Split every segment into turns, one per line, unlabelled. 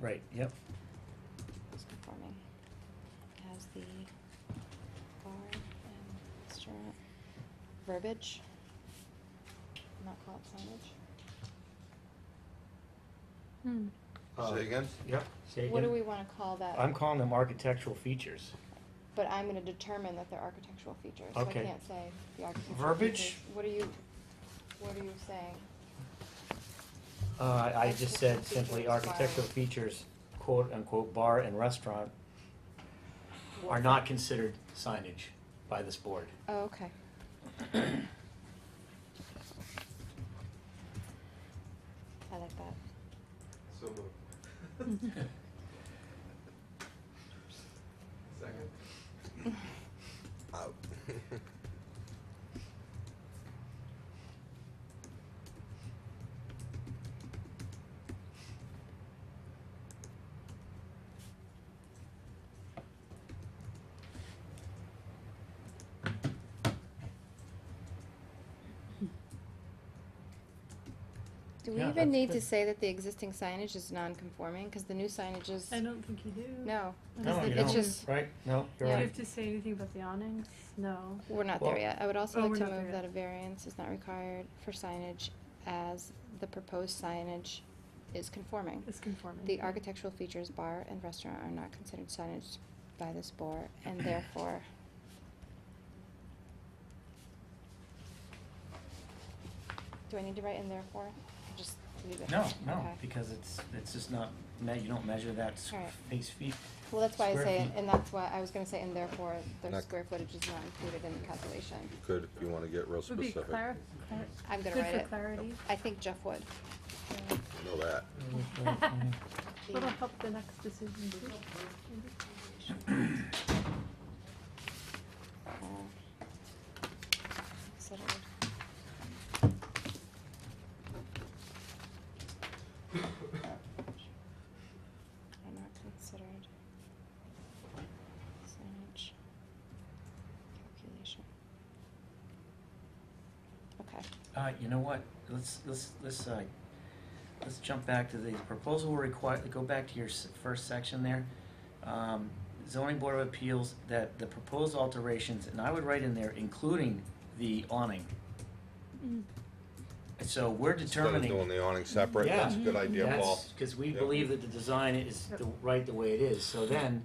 Right, yep.
It's conforming. It has the bar and restaurant verbiage. Not call it signage.
Hmm.
Uh,
Say again?
Yep. Say
What do
again.
we wanna call that?
I'm calling them architectural features.
But I'm gonna determine that they're architectural features, so I
Okay.
can't say the architectural features.
Verbiage?
What are you, what are you saying?
Uh, I just said
Architectural
simply
features, bar.
architectural features, quote unquote, bar and restaurant are not considered signage by this board.
Oh, okay. I like that.
So moved. Second. Out.
Do we
Yeah,
even
that's
need to
good.
say that the existing signage is non-conforming, cause the new signage is,
I don't think you do.
no,
I
No,
don't
you
think
it's
don't.
just,
Right, no,
Do
you're
you
Yeah.
right.
have to say anything about the awnings? No.
We're not
Well-
there yet. I would also
Oh,
like
we're
to
not there
move
yet.
that a variance is not required for signage as the proposed signage is conforming.
It's conforming.
The architectural features bar and restaurant are not considered signage by this board and therefore Do I need to write in therefore? Or Just leave it?
No, no,
Okay.
because it's, it's just not, me- you don't measure that s-
Alright.
face feet.
Well, that's why I
square
say, it,
feet.
and that's why I was gonna say, and therefore, the
Not-
square footage is not included in the calculation.
You could if you wanna get real
Would be
specific.
clar- clar-
I'm gonna
good
write
for
it.
clarity.
I think Jeff would.
I know that.
The-
It'll help the next decision too. maybe.
Uh, considered. Are not considered. Signage. Calculation. Okay,
Uh, you know what, let's, let's, let's, uh, let's jump back to the proposal will require, go back to your s- first section there. Um, zoning board of appeals, that the proposed alterations, and I would write in there, including the awning.
Mm.
So we're
Instead of
determining,
doing the awning separate,
Yeah.
that's a good idea, Paul.
that's, cause we
Yeah.
believe that the design is
Yep.
the, right the way it is, so then,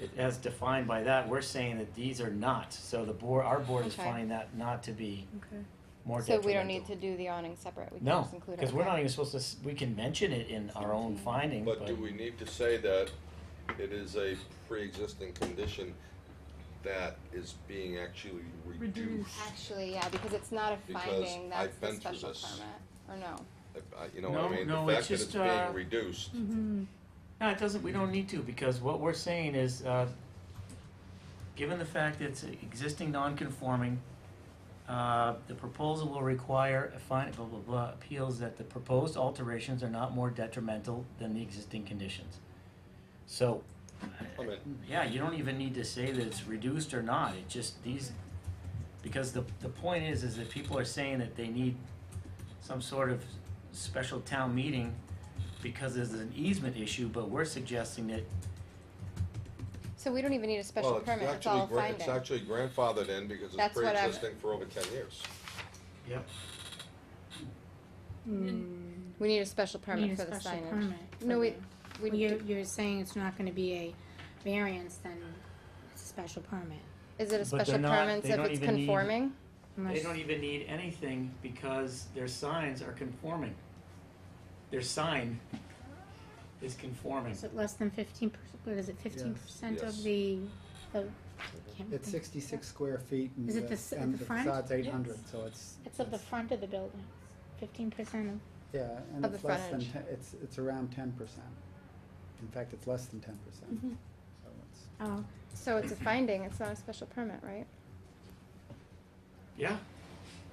it, as defined by that, we're saying that these are not, so the board, our board is
Okay.
finding that not to be
Okay.
more
so
detrimental.
we don't need to do the awning separate, we can
No,
just include it.
because we're
okay.
not even supposed to, s- we can mention it in our own finding, but.
But do we need to say that it is a pre-existing condition that is being actually reduced?
Reduced.
Actually, yeah, because it's not a
Because
finding, that's
I've
the
been through
special
this.
permit, or no?
If I- You know what
No,
I mean?
no,
The
it's
fact that
just,
it's
uh,
being reduced,
Mm-hmm.
No, it doesn't, we don't need to, because what we're saying is, uh, given the fact that it's existing non-conforming, uh, the proposal will require a fine, blah, blah, blah, appeals that the proposed alterations are not more detrimental than the existing conditions. So,
I mean,
yeah, you don't even need to say that it's reduced or not, it just, these, because the, the point is, is that people are saying that they need some sort of special town meeting because there's an easement issue, but we're suggesting that,
So we don't even need a
well,
special
it's
permit, it's all
actually,
a
gra-
finding.
it's actually grandfathered in because it's
That's what I'm-
pre-existing for over ten years.
yep,
Mm.
We need a special
Need
permit
a
for the
special
signage.
permit for
No, we,
the-
we,
Well, you're,
do-
you're saying it's not gonna be a variance, then it's a special permit.
is it a
But
special
they're not-
permit
they
if
don't
it's
even need-
conforming?
they
Unless-
don't even need anything because their signs are conforming. Their sign is conforming.
Is it less than fifteen percent, what is it, fifteen percent
Yes.
of the, the, can't
It's
think.
sixty-six square feet and
Is
the,
it the s-
and
the
the
front?
facade's eight hundred,
Yes.
so it's.
It's of the front of the building, fifteen percent of,
Yeah, and
Of
it's
the
less than,
frontage.
ten- it's, it's around ten percent. In fact, it's less than ten percent,
Mm-hmm.
so it's.
oh,
So it's a finding, it's not a special permit, right?
Yeah?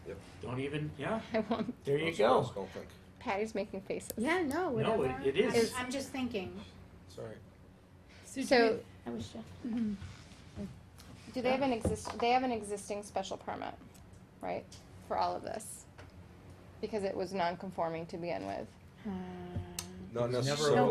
Yep.
Don't even, yeah,
I won't,
there you
Most girls
go.
Don't think,
Patty's making faces.
yeah, no,
No,
whatever.
it- it
I'm-
is.
I'm just thinking,
sorry.
So, do
So,
we-
I was just,
do they have an exist, they have an existing special permit, right, for all of this? Because it was non-conforming to begin with.
uh.
Not
It's never
necessarily.